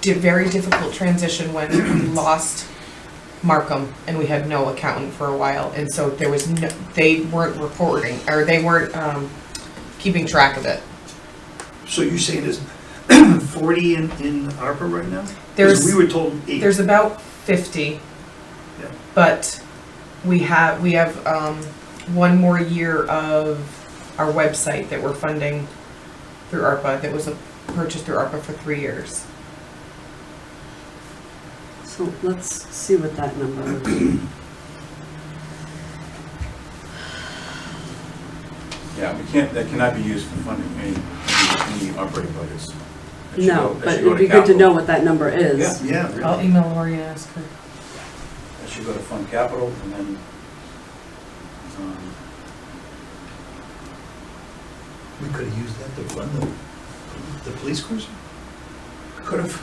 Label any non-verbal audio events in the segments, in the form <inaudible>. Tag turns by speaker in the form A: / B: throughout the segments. A: di- very difficult transition when we lost Markham and we had no accountant for a while, and so there was no, they weren't reporting, or they weren't, um, keeping track of it.
B: So you're saying there's <clears throat> forty in, in ARPA right now? 'Cause
A: There's.
B: We were told eight.
A: There's about fifty.
B: Yeah.
A: But we have, we have, um, one more year of our website that we're funding through ARPA, that was a purchase through ARPA for three years.
C: So let's see what that number
D: <clears throat>
C: is.
D: Yeah, we can't, that cannot be used for funding any, any operating budgets. That should go-
C: No,
D: that
C: but
D: should go
C: it'd be good to
D: capital.
C: know what that number is.
D: Yeah.
B: Yeah,
A: I'll
B: really.
A: email Lori and ask her.
D: That should go to fund capital and then, um,
B: We could have used that to fund the, the police cruiser. Could have.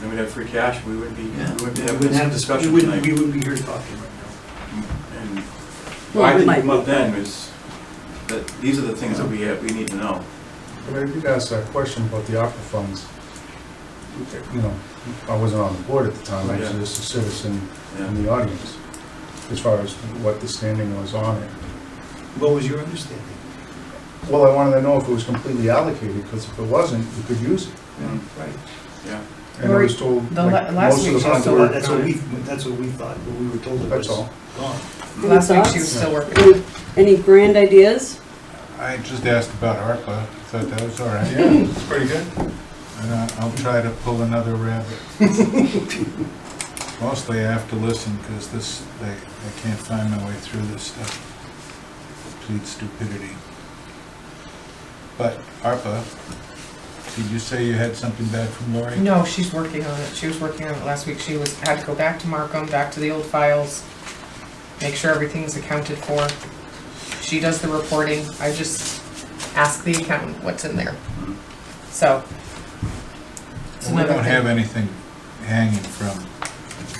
D: then we'd have free cash, we would be, we
B: Yeah.
D: would
B: We
D: be having
B: wouldn't
D: this
B: have- we
D: discussion
B: wouldn't, we
D: tonight.
B: wouldn't be here talking right now.
D: And
C: Well,
D: why I
C: we
D: didn't
C: might
D: come up
C: be.
D: then is that these are the things that we have, we need to know.
E: But I did ask that question about the ARPA funds. You know, I wasn't on the board at the time, I was
D: Yeah.
E: just a citizen
D: Yeah.
E: in the audience, as far as what the standing was on it.
B: What was your understanding?
E: Well, I wanted to know if it was completely allocated, because if it wasn't, you could use it.
D: Yeah.
B: Right.
D: Yeah,
E: And I was told,
A: The
E: like,
A: la- last
E: most of the
A: meeting was
E: funds
A: the
E: were,
A: one
B: That's what we, that's what we thought, but we were told it
E: that's
B: was
E: all.
B: gone.
C: Any
A: Last week she was
C: thoughts?
A: still working.
C: Any- Any grand ideas?
F: I just asked about ARPA, thought that was all right.
E: Yeah, it's pretty good.
F: And I- I'll try to pull another rabbit. Mostly I have to listen, because this, I I can't find my way through this stuff. Complete stupidity. But ARPA, did you say you had something bad from Lori?
A: No, she's working on it, she was working on it last week, she was, had to go back to Markham, back to the old files, make sure everything's accounted for. She does the reporting, I just ask the accountant what's in there.
D: uh-huh,
A: So. it's
F: We
A: another
F: don't
A: thing.
F: have anything hanging from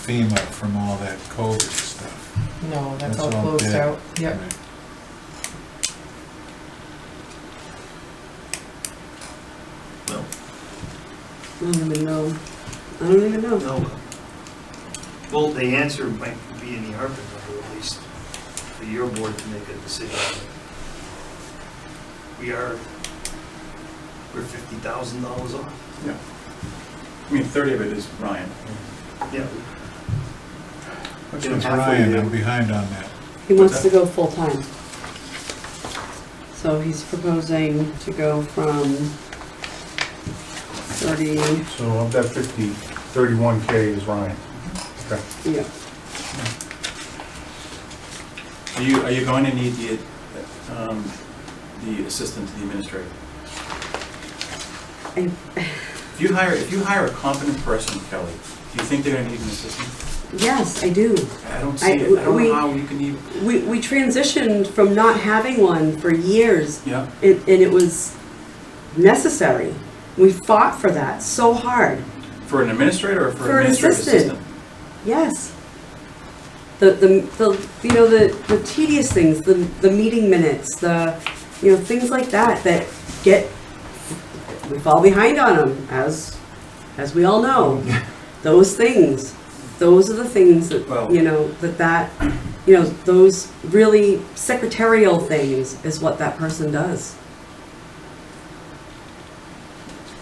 F: FEMA, from all that COVID stuff.
A: No, that's
F: That's
A: all
F: all
A: closed
F: dead.
A: out, yep.
F: right?
B: Well,
C: I don't even know. I don't even know.
B: no. Well, the answer might be in the ARPA number, at least for your board to make a decision. We are, we're fifty thousand dollars off.
D: I mean, thirty of it is Ryan.
B: Yeah,
F: What's
B: Get
F: with
B: halfway
F: Ryan?
B: there.
F: I'm behind on that.
C: He
D: What's
C: wants to
D: that?
C: go full-time. So he's proposing to go from 30,
E: So of that 50, 31K is Ryan. Okay.
C: yeah,
D: Are you, are you going to need the, um, the assistant to the administrator?
C: I-
D: If you hire, if you hire a competent person, Kelly, do you think they're gonna need an assistant?
C: yes, I do.
D: I don't
C: I-
D: see it, I don't
C: we-
D: know how you can even,
C: We, we transitioned from not having one for years
D: yeah,
C: it, and it was necessary. We fought for that so hard.
D: for an administrator or for
C: For
D: an
C: an
D: administrative
C: assistant.
D: assistant?
C: Yes. The, the, the, you know, the, the tedious things, the, the meeting minutes, the, you know, things like that, that get, we fall behind on them, as, as we all know. Those things, those are the things that,
D: Well-
C: you know, that that, you know, those really secretarial things is what that person does.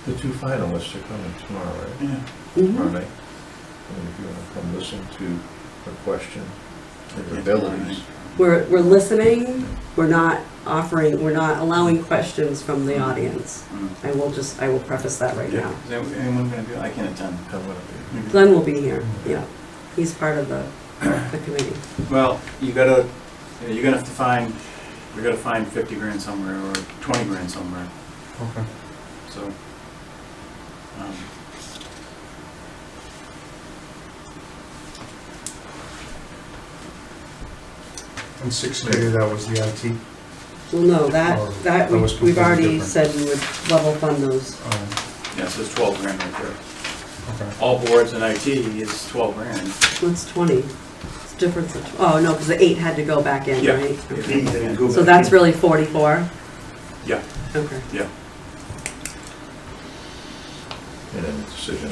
G: The two finalists are coming tomorrow, right?
D: Yeah.
C: Mhm.
G: Tomorrow night. And if you want to come listen to the question, their abilities.
C: We're, we're listening, we're not offering, we're not allowing questions from the audience.
D: Mm.
C: I will just, I will preface that right now.
D: Yeah, is that- anyone gonna do, I can't attend.
G: I'm gonna be-
C: Glenn will be here, yeah. He's part of the, the committee.
D: Well, you gotta, you know, you're gonna have to find, we gotta find fifty grand somewhere or twenty grand somewhere,
E: Okay.
D: so. um,
E: And 6K, that was the IT.
C: Well, no, that, that, we-
E: That was
C: we've
E: completely
C: already
E: different.
C: said we would level fund those.
E: Um,
D: Yeah, so it's twelve grand right there.
E: Okay.
D: All boards and IT is twelve grand.
C: That's twenty. It's different, than- oh, no, because the eight had to go back in,
D: Yeah.
C: right?
B: they-
C: Okay.
B: they go
C: So
B: back
C: that's
B: in.
C: really forty-four?
D: Yeah.
C: Okay.
D: Yeah.
G: And then decision